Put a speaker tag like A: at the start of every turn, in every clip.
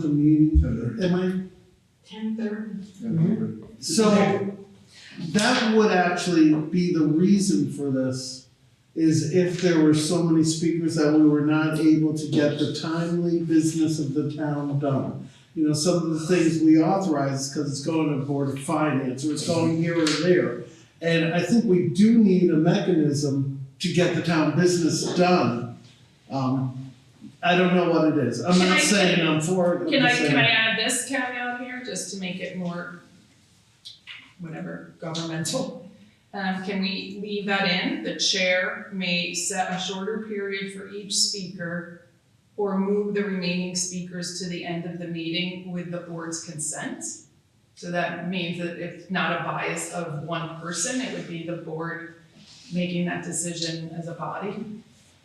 A: the meeting,
B: Ten
A: am I?
C: Ten thirty.
B: thirty.
A: So, that would actually be the reason for this, is if there were so many speakers that we were not able to get the timely business of the town done. You know, some of the things we authorize, because it's going to Board of Finance, or it's going here or there. And I think we do need a mechanism to get the town business done. Um, I don't know what it is, I'm
C: Can I-
A: not saying I'm for it. I'm
C: Can I,
A: just saying-
C: can I add this caveat here, just to make it more, whatever, governmental? Um, can we leave that in? The chair may set a shorter period for each speaker or move the remaining speakers to the end of the meeting with the board's consent. So that means that if not a bias of one person, it would be the board making that decision as a body.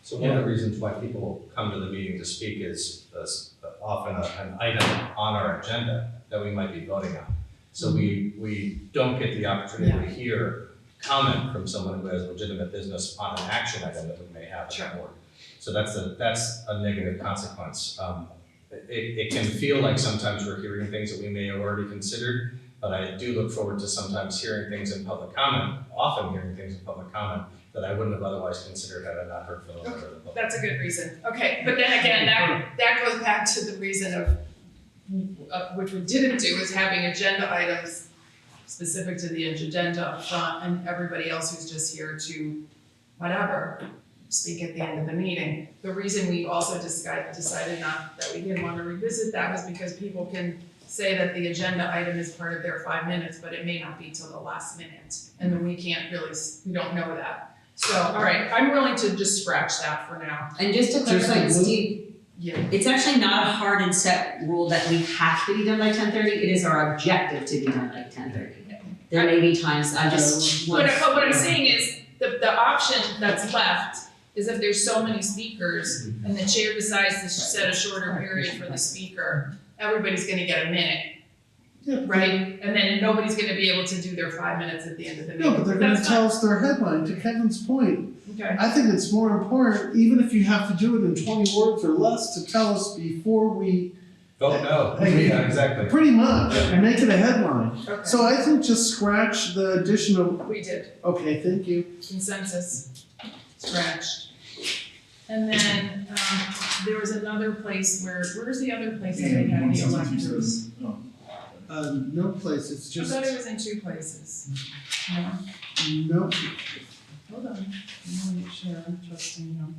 D: So one of the reasons why people come to the meeting to speak is uh, s- often a- an item on our agenda that we might be voting on. So we, we don't get the opportunity to hear comment from someone who has legitimate business on an action item that we may have
C: Sure.
D: at the board. So that's a, that's a negative consequence. Um, It, it can feel like sometimes we're hearing things that we may have already considered, but I do look forward to sometimes hearing things in public comment, often hearing things in public comment that I wouldn't have otherwise considered had I not heard from a member of the public.
C: That's a good reason, okay, but then again, that, that goes back to the reason of, of which we didn't do, is having agenda items specific to the agenda up front, and everybody else who's just here to, whatever, speak at the end of the meeting. The reason we also decided, decided not, that we didn't wanna revisit that was because people can say that the agenda item is part of their five minutes, but it may not be till the last minute, and then we can't really, s- we don't know that. So, all right, I'm willing to just scratch that for now.
E: And just to
A: Just
E: clarify,
A: a rule?
E: Steve,
C: Yeah,
E: it's actually not a hard and set rule that we have to be done by ten thirty, it is our objective to be done by ten thirty. There may be times I just
C: but
E: want.
C: but what I'm saying is, the, the option that's left is if there's so many speakers
A: Mm-hmm.
C: and the chair decides to set a shorter period for the speaker, everybody's gonna get a minute,
A: Yeah, but-
C: right? And then nobody's gonna be able to do their five minutes at the end of the meeting.
A: No, but they're gonna
C: That's
A: tell us their headline, to Kevin's point,
C: fine. Okay,
A: I think it's more important, even if you have to do it in twenty words or less, to tell us before we,
D: Vote no, yeah, exactly.
A: pretty much, and make it a headline.
C: okay.
A: So I think just scratch the addition of,
C: We did
A: okay, thank you.
C: consensus, scratched. And then, um, there was another place where, where's the other oh. place that they had the electors?
A: Uh, no place, it's
C: I
A: just,
C: thought it was in two places. No?
A: no,
C: Hold on, I wanna make sure I'm trusting him.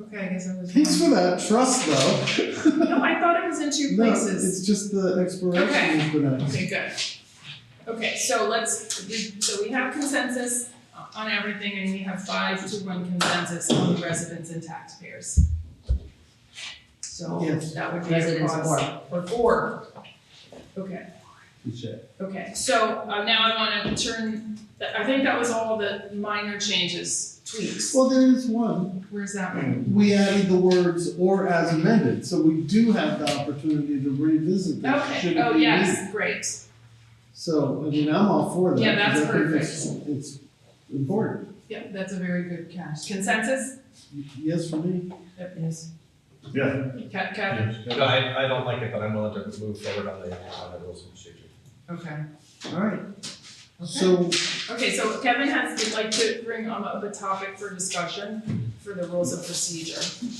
C: Okay, I guess I was.
A: thanks
C: wrong.
A: for that trust though.
C: No, I thought it was in two
A: No,
C: places.
A: it's just the exploration
C: Okay.
A: is the next.
C: Okay, good. Okay, so let's, we- so we have consensus on everything and we have five to one consensus on the residents and taxpayers. So
A: Yes.
C: that would be a
E: Residents
C: cause. Or four. Okay. Okay, so uh, now I wanna turn, I think that was all the minor changes, tweaks.
A: Well, there is one,
C: Where's that one?
A: we added the words or as amended, so we do have the opportunity to revisit this, should it
C: Okay,
A: be
C: oh, yes, great.
A: needed. So, I mean, I'm all for that.
C: Yeah, that's
A: because I think it's- It's important,
C: Yeah, that's a very good catch. Consensus?
A: yes for me.
C: Yep, yes.
B: Yeah.
C: Ca- Kevin?
D: No, I, I don't like it, but I'm willing to move forward on the, on the rules and procedure.
C: Okay.
A: Alright. So,
C: Okay, so Kevin has, would like to bring um, up a topic for discussion for the rules of procedure.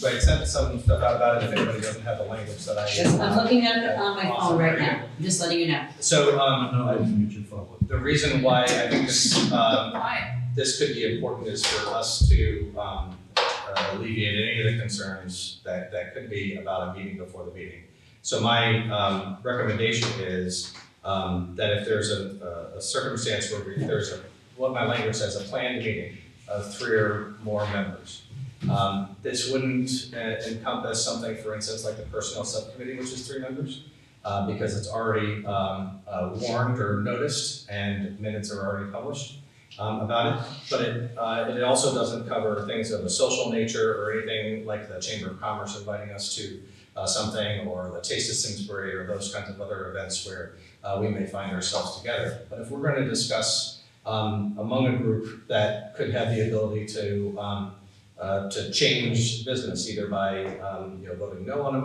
D: Right, send some stuff out about it if anybody doesn't have the language that I.
E: Yes, I'm looking at it on my phone right now, just letting you know.
D: So, um,
B: No, I
D: I-
B: didn't get your phone.
D: the reason why I think this, um,
C: Why?
D: this could be important is for us to um, uh, alleviate any of the concerns that, that could be about a meeting before the meeting. So my um, recommendation is um, that if there's a, a- a circumstance where we- there's a, what my language says, a planned meeting of three or more members, um, this wouldn't uh, encompass something, for instance, like the personnel subcommittee, which is three members, uh, because it's already um, uh, warned or noticed and minutes are already published um, about it but it, uh, it also doesn't cover things of a social nature or anything like the Chamber of Commerce inviting us to uh, something or the Taste of Simsbury or those kinds of other events where uh, we may find ourselves together. But if we're going to discuss um, among a group that could have the ability to um, uh, to change business either by um, you know voting no on a